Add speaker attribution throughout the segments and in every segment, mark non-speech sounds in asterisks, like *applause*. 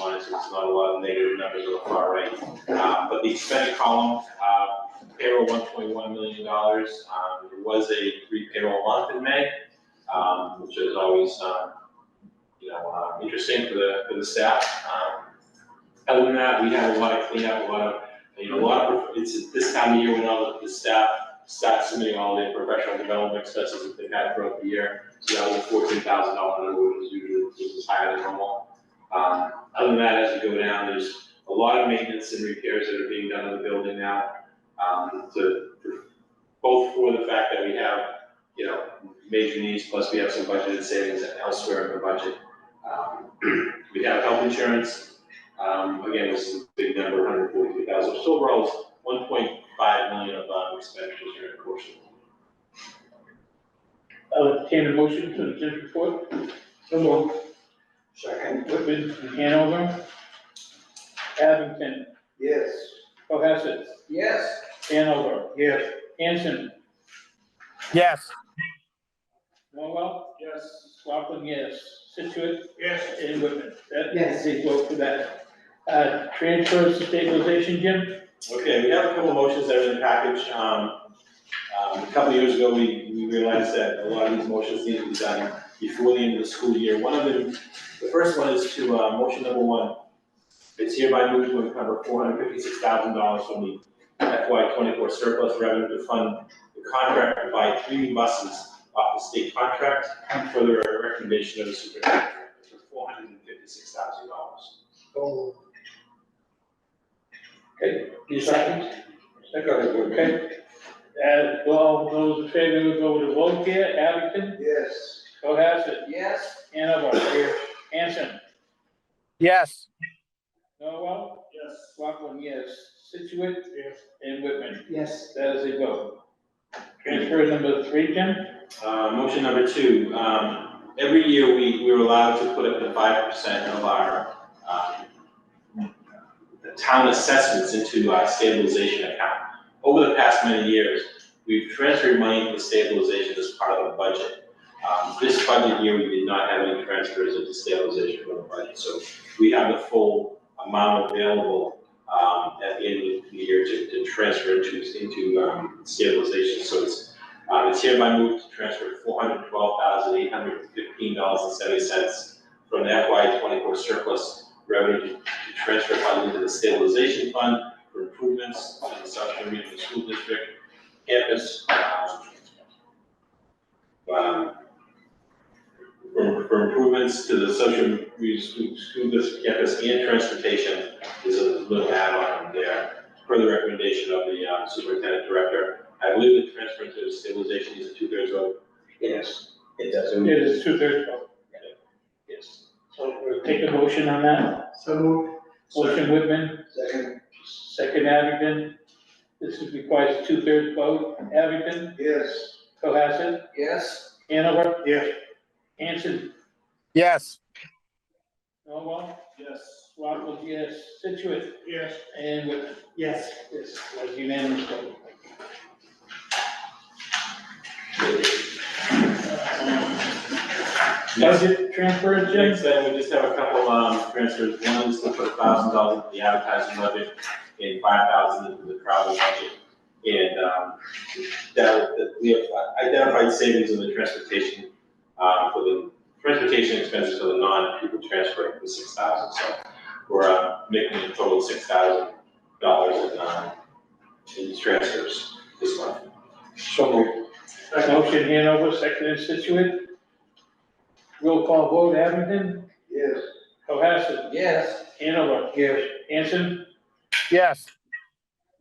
Speaker 1: on it, so it's not a lot of negative numbers on the far right. Uh, But the expense column, uh, payroll one point one million dollars. Um, There was a three payroll month in May, um, which is always, um, you know, uh, interesting for the, for the staff. Um, Other than that, we had a lot of cleanup, a lot of, you know, a lot of, it's at this time of year when all of the staff start submitting all their professional development expenses that they've had throughout the year. So that was a fourteen thousand dollar number, which is usually, which is higher than normal. Um, Other than that, as we go down, there's a lot of maintenance and repairs that are being done in the building now um, to, to- both for the fact that we have, you know, major needs, plus we have some budgeted savings elsewhere in the budget. Um, *clears throat* We have health insurance, um, again, this is a big number, hundred forty-three thousand, so overall it's one point five million of um, expenditures during the course of the year.
Speaker 2: I'll entertain a motion to the district report. So moved.
Speaker 3: Second.
Speaker 2: Whitman, Hanover. Abington,
Speaker 3: Yes.
Speaker 2: Cohasset,
Speaker 3: Yes.
Speaker 2: Hanover,
Speaker 3: Yes.
Speaker 2: Hanson,
Speaker 4: Yes,
Speaker 2: Norwell. Yes. Rockland, yes. Situate
Speaker 3: Yes.
Speaker 2: and Whitman. That-
Speaker 3: Yes.
Speaker 2: They vote for that. Uh, transfers to stabilization, Jim?
Speaker 1: Okay, we have a couple of motions that are in the package. Um, um, A couple of years ago, we, we realized that a lot of these motions need to be done before the end of the school year. One of them, the first one is to, uh, motion number one. It's hereby moved to encumber four hundred fifty-six thousand dollars from the FY twenty-four surplus revenue to fund the contract to buy three buses off the state contract for the recommendation of the superintendent for four hundred and fifty-six thousand dollars.
Speaker 2: Oh. You second? Okay. Uh, well, those in favor, we'll go with a vote here. Abington,
Speaker 3: Yes.
Speaker 2: Cohasset,
Speaker 3: Yes.
Speaker 2: Hanover, Hanson,
Speaker 4: yes,
Speaker 2: Norwell? Yes. Rockland, yes. Situate? Yes. And Whitman,
Speaker 3: Yes.
Speaker 2: that is a vote. Transfer number three, Jim?
Speaker 1: Uh, motion number two, um, every year we, we were allowed to put up to five percent of our, um, town assessments into our stabilization account. Over the past many years, we've transferred money to stabilization as part of the budget. Um, this budget year, we did not have any transfers into stabilization for the budget, so we have the full amount available, um, at the end of the year to, to transfer into, into, um, stabilization, so it's um, it's hereby moved to transfer four hundred twelve thousand eight hundred fifteen dollars and seventy cents from the FY twenty-four surplus revenue to transfer fund into the stabilization fund for improvements to the South Regional School District campus. um, um, For, for improvements to the social Regional School, School District campus and transportation is a little add-on there. Per the recommendation of the um, superintendent director, I believe the transfer to stabilization is a two-thirds vote.
Speaker 3: Yes. It
Speaker 2: It
Speaker 3: doesn't.
Speaker 2: is two-thirds vote. Yes. So we'll take a motion on that.
Speaker 3: So moved.
Speaker 2: Motion Whitman,
Speaker 3: Second.
Speaker 2: second Abington. This is requires two-thirds vote. Abington,
Speaker 3: Yes.
Speaker 2: Cohasset,
Speaker 3: Yes.
Speaker 2: Hanover,
Speaker 3: Yes.
Speaker 2: Hanson,
Speaker 4: yes,
Speaker 2: Norwell? Yes. Rockland, yes. Situate?
Speaker 3: Yes.
Speaker 2: And Whitman?
Speaker 3: Yes.
Speaker 2: Yes, was unanimous vote.
Speaker 1: Next,
Speaker 2: Budget transfer, Jim?
Speaker 1: next item, we just have a couple, um, transfers, one is to put thousand dollars into the advertising budget and five thousand into the travel budget. And, um, that, that we have identified savings in the transportation, uh, for the transportation expenses for the non-pupil transfer for six thousand, so we're, uh, making a total of six thousand dollars in, um, in transfers this month.
Speaker 2: So Motion Hanover, second and Situate. Roll call vote, Abington,
Speaker 3: Yes.
Speaker 2: Cohasset,
Speaker 3: Yes.
Speaker 2: Hanover. Yes. Anson,
Speaker 4: yes,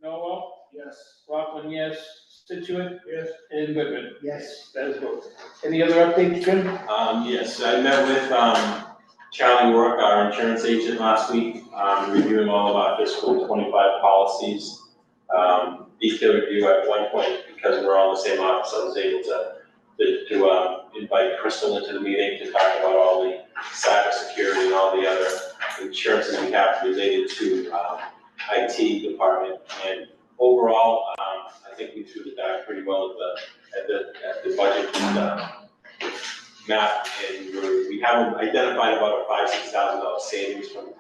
Speaker 2: Noel. Yes. Rockland, yes. Situate
Speaker 3: Yes.
Speaker 2: and Whitman.
Speaker 3: Yes.
Speaker 2: That is vote. Any other updates, Jim?
Speaker 1: Um, yes, I met with, um, Charlie Work, our insurance agent last week, um, reviewing all of our fiscal twenty-five policies. Um, detailed review at one point, because we're all in the same office, I was able to, to, to, um, invite Crystal into the meeting to talk about all the cybersecurity and all the other insurances we have related to, um, IT department. And overall, um, I think we threw the dive pretty well at the, at the, at the budget, and, um, map, and we're- we have identified about a five, six thousand dollar savings from